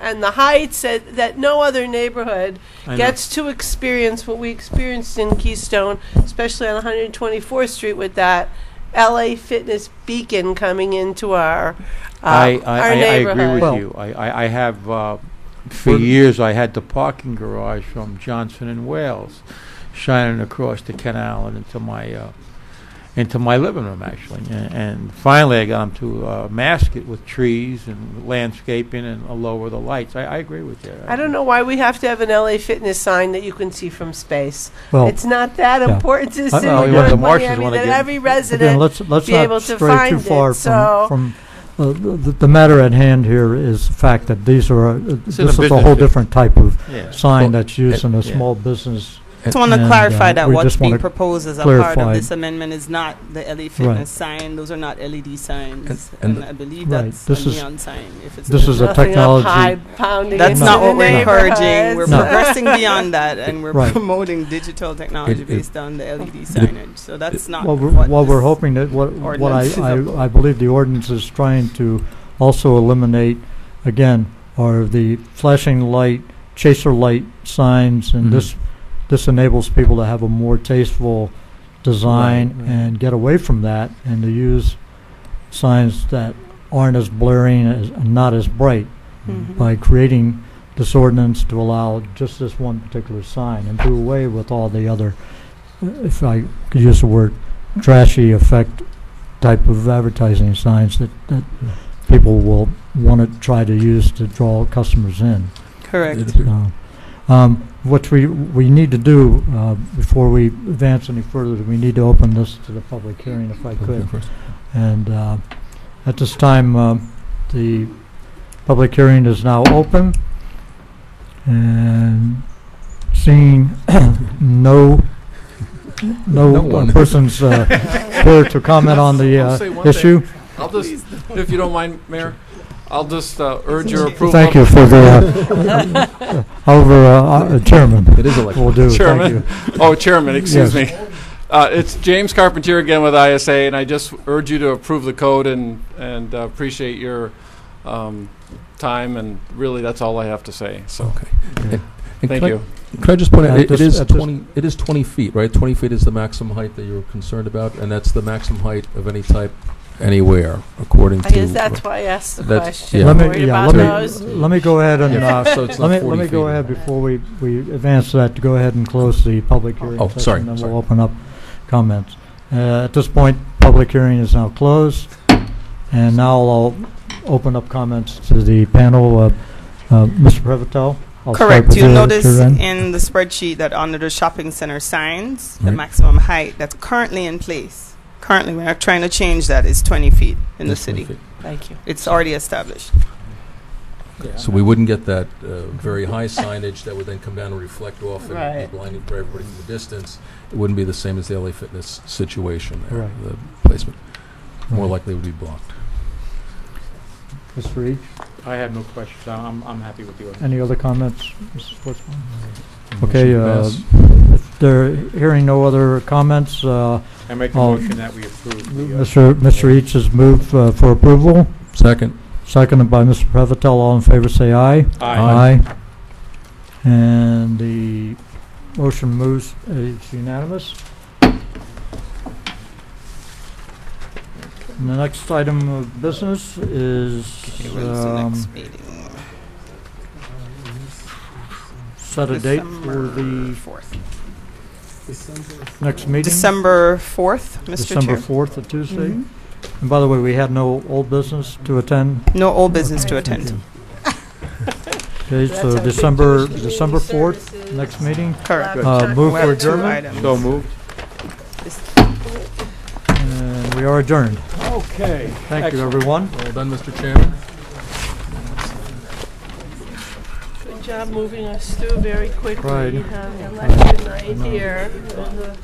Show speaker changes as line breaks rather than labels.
and the Heights that, that no other neighborhood
I know.
gets to experience what we experienced in Keystone, especially on 124th Street with that LA Fitness beacon coming into our uh,
I, I,
our
I, I
neighborhood.
agree with
Well-
you. I, I, I have, uh, for
We're-
years, I had the parking garage from Johnson and Wales shining across the canal and into my, uh, into my living room, actually. And, and finally, I got them to uh, mask it with trees and landscaping and uh, lower the lights. I, I agree with you.
I don't know why we have to have an LA Fitness sign that you can see from space.
Well,
it's not that
yeah.
important to the
I
city
know,
of
you want the
North
Martians
Miami
wanna
that
get-
every
again,
resident.
let's, let's
be able
not
to
stray too
find it,
far
so-
from, from, uh, the, the matter at hand here is the fact that these are, uh, this
in
is
the
a
business
whole
district.
different type of
Yeah.
sign that's used in a
yeah.
small business.
Just want
And,
to
uh,
clarify that
we
what's
just wanna
being proposed as a part
clarify-
of this amendment is not the LA Fitness sign. Those are not LED signs.
and
And, I believe
Right,
that's
this
a
is-
neon sign. If it's
this is a
nothing up
technology-
high pounding
That's
into
not
the
what we're encouraging.
neighborhoods.
We're
No.
progressing beyond that, and we're
Right.
promoting digital technology
it-
based on the LED signage. So that's not
Well, we're,
what
well, we're
this-
hoping that, what, what I,
ordinance is up-
I, I believe the ordinance is trying to also eliminate, again, are the flashing light, chaser light signs,
Mm-hmm.
and this, this enables people to have a more tasteful
Right,
design
right.
and get away from that, and to use signs that aren't as blaring, as- and not as bright,
Mm-hmm.
Mhm.
by creating this ordinance to allow just this one particular sign and do away with all the other, uh, if I could use the word, trashy effect type of advertising signs that, that people will want to try to use to draw customers in.
Correct.
Uh, um, What we, we need to do, uh, before we advance any further, we need to open this to the public hearing if I could. And uh, at this time, um, the public hearing is now open. And seeing no,
No
no
one.
uh, persons uh, here to comment on the
I'll
uh,
say one thing.
issue,
I'll just, if you don't mind, Mayor, I'll just uh, urge your approval.
thank you for the, uh, however, uh, uh, Chairman
It is electric.
will do. Thank
Chairman.
you.
Oh, Chairman, excuse
Yes.
me. Uh, It's James Carpentier again with ISA, and I just urge you to approve the code and, and uh, appreciate your um, time, and really, that's all I have to say, so,
Okay.
Yeah.
And
thank
can I-
you.
Can I just point out,
At
it-
this-
it is
at this-
20, it is 20 feet, right? 20 feet is the maximum height that you're concerned about, and that's the maximum height of any type anywhere, according to...
I guess that's why I asked the
That's-
question.
yeah.
Let
Worried
me, yeah,
about
let
those.
me, let me go ahead and, uh,
Yeah, so it's not
let me,
40
let me
feet.
go ahead before we, we advance that, to go ahead and close the public hearing
Oh,
session,
sorry,
And then
sorry.
we'll open up comments. Uh, at this point, public hearing is now closed. And now I'll open up comments to the panel. Uh, uh, Mr. Prevotel? I'll start
Correct.
with
You notice
your end.
in the spreadsheet that under the shopping center signs, the
Right.
maximum height that's currently in place, currently we're not trying to change that, is 20 feet in the
That's 20
city.
feet.
Thank you.
It's already established.
So we wouldn't get that uh, very high signage that would then come down and reflect off and
Right.
be blinding for everybody from the distance. It wouldn't be the same as the LA Fitness situation, there,
Right.
the placement. More
Right.
likely it would be blocked.
Mr. Reed,
I have no questions. I'm, I'm happy with you.
any other comments? Mrs. Schwartzman? Okay,
Motion
uh,
pass.
if there, hearing no other comments, uh,
I make
a Oh. motion
that we approve. uh,
Mr. Mr. Eads has moved uh, for approval.
Second.
Seconded by Mr. Prevotel. All in favor, say aye.
Aye.
Aye. And the motion moves, it's unanimous. And the next item of business is
Okay, when's the
um,
next meeting?
set a date for the
fourth.
next meeting.
December fourth, Mr.
December
Chair.
4th, a Tuesday.
Mhm.
And by the way, we had no old business to attend.
No old business to attend to.
Okay, so uh, December, December 4th, next meeting.
Correct.
Uh, Move
We
for
have two
adjournment,
items.
So moved.
and we are adjourned.
Okay.
Thank you, everyone.
Well done, Mr. Chairman.
Good job moving us through very quickly.
Right.
We have an election night here. and the-